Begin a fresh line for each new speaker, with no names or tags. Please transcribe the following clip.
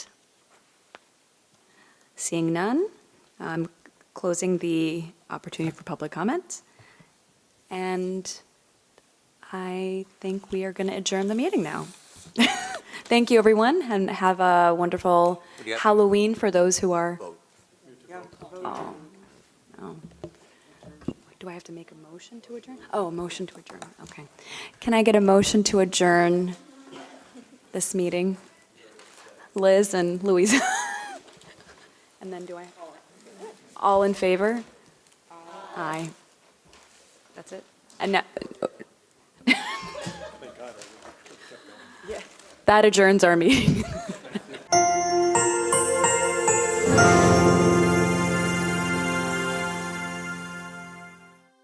Seeing none, I'm closing the opportunity for public comment. And I think we are going to adjourn the meeting now. Thank you, everyone, and have a wonderful
Yep.
Halloween for those who are.
Yeah,
Oh, oh. Do I have to make a motion to adjourn? Oh, a motion to adjourn, okay. Can I get a motion to adjourn this meeting? Liz and Louise? And then do I? All in favor? Aye. That's it? And now. That adjourns our meeting.